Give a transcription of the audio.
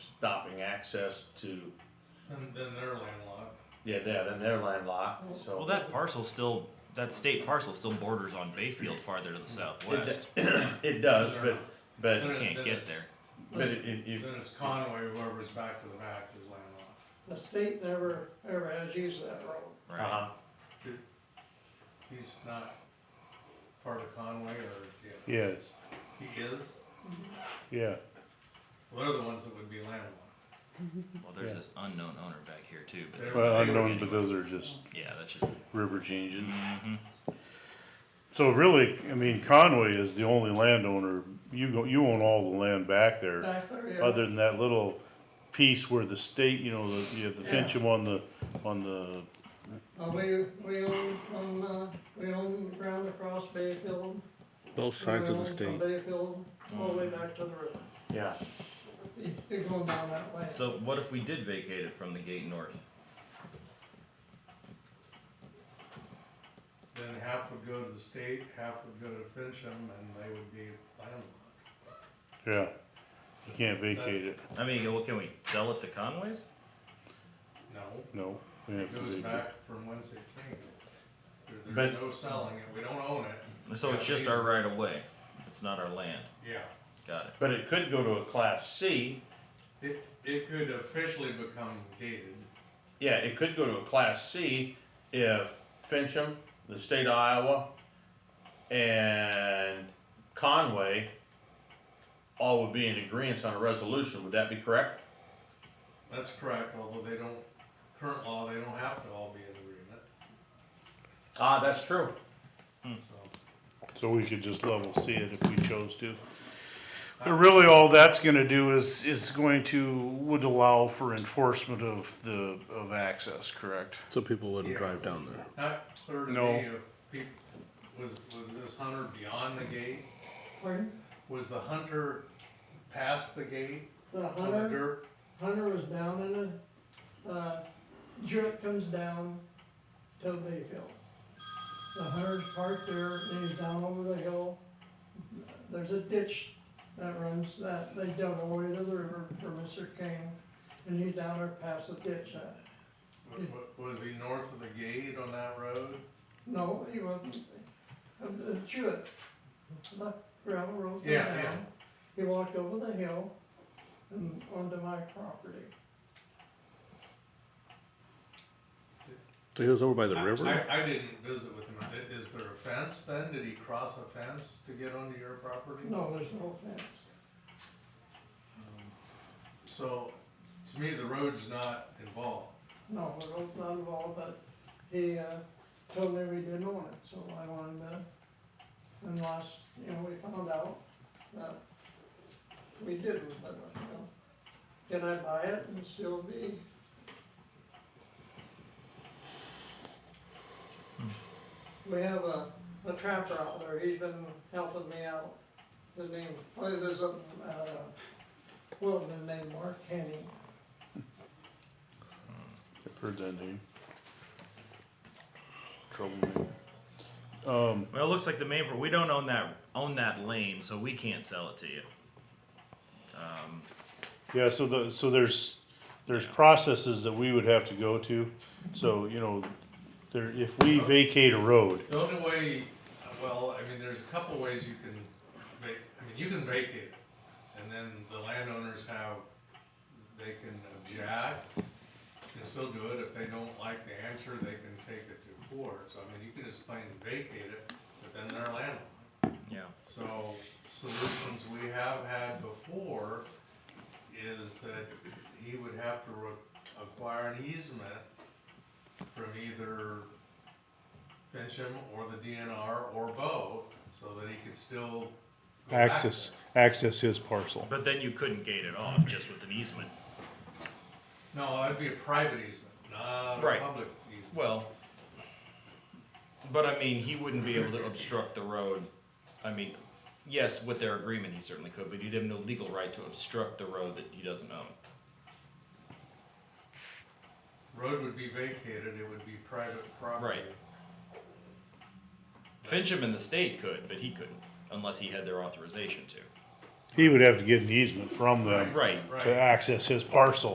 stopping access to, And then they're landlocked. yeah, that, and they're landlocked, so. Well, that parcel still, that state parcel still borders on Bayfield farther to the It southwest. do- It does, but, You but, can't get there. but it, it, it- Then it's Conway, whoever's back to the back is landlocked. The state never, ever has used that road. Right. uh-huh, He's not part of Conway or, yeah, Yes, he is. yeah. They're the ones that would be landlocked. Well, there's Yeah. this unknown owner back here too, but They're- Well, they would- unknown, but those are just yeah, that's just, river changes. mhm. So really, I mean, Conway is the only landowner. You go, you own all the land back there, Back there, yeah. other than that little piece where the state, you know, the, you have the Yeah. Fincham on the, on the, Uh, we, we own from, uh, we own ground across Bayfield. Both sides of the From state. Bayfield, all the way back to the river. yeah. You- You're going down that way. So what if we did vacate it from the gate north? Then half would go to the state, half would go to Fincham, and they would be landlocked. yeah. You can't vacate it, I mean, well, can we sell it to Conway's? No, no. we have it to goes vacate. back from whence it came. There- There's But- no selling it, we don't own it. So it's just our right of way. It's not our land. Yeah, Got it. But it could go to a class C, it, it could officially become gated. yeah, it could go to a class C if Fincham, the state of Iowa, and Conway all would be in agreement on a resolution, would that be correct? That's correct, although they don't, current law, they don't have to all be in agreement, Ah, that's true. so. So we could just level see it if we chose to. But really, all that's gonna do is, is going to, would allow for enforcement of the, of access, correct? So people wouldn't Yeah. drive down there. Not clear to No. me if people, was, was this hunter beyond the gate? Pardon? Was the hunter past the gate The on the hunter, dirt? hunter was down in the, uh, Jurek comes down to Bayfield. The hunter's parked there, and he's down over the hill. There's a ditch that runs, that they dug away to the river for Mr. King, and he's down there past the ditch. Uh, W- w- Was he north of the gate on that road? No, he wasn't. Uh, uh, Jewett, the gravel road went Yeah, yeah. down. He walked over the hill and onto my property. So he was over by the I- river? I, I didn't visit with him. I- Is there a fence then? Did he cross a fence to get onto your property? Um, No, there's no fence. So, to me, the road's not involved. No, the road's not involved, but he, uh, told me we didn't own it, so I wanted to, and last, you know, we found out that we didn't, but, you know, can I buy it and still be? We have a, a trapper out there, he's been helping me out, the name, well, there's a, uh, Wilton named Mark Henny, Heard that name. Troublemaker. Um, Well, it looks like the main, pro- we don't own that, own that lane, so we can't sell it to you. Um, yeah, so the, so there's, there's processes that we would have to go to. So, you know, there, if we vacate a road, The only way, well, I mean, there's a couple ways you can va- I mean, you can vacate it, and then the landowners have, they can object, can still do it, if they don't like the answer, they can take it to court, so I mean, you can just plain vacate it, but then they're landlocked. yeah. So, solutions we have had before is that he would have to re- acquire an easement from either Fincham or the DNR or both, so that he could still. go back access, access his parcel. But then you couldn't gate it off just with an easement. there. No, that'd be a private easement, not a Right. public easement. Well, but I mean, he wouldn't be able to obstruct the road. I mean, yes, with their agreement, he certainly could, but he'd have no legal right to obstruct the road that he doesn't own. Road would be vacated, it would be private property. Right. Fincham and the state could, but he couldn't, unless he had their authorization to. He would have to get an easement from them Right. to access his parcel.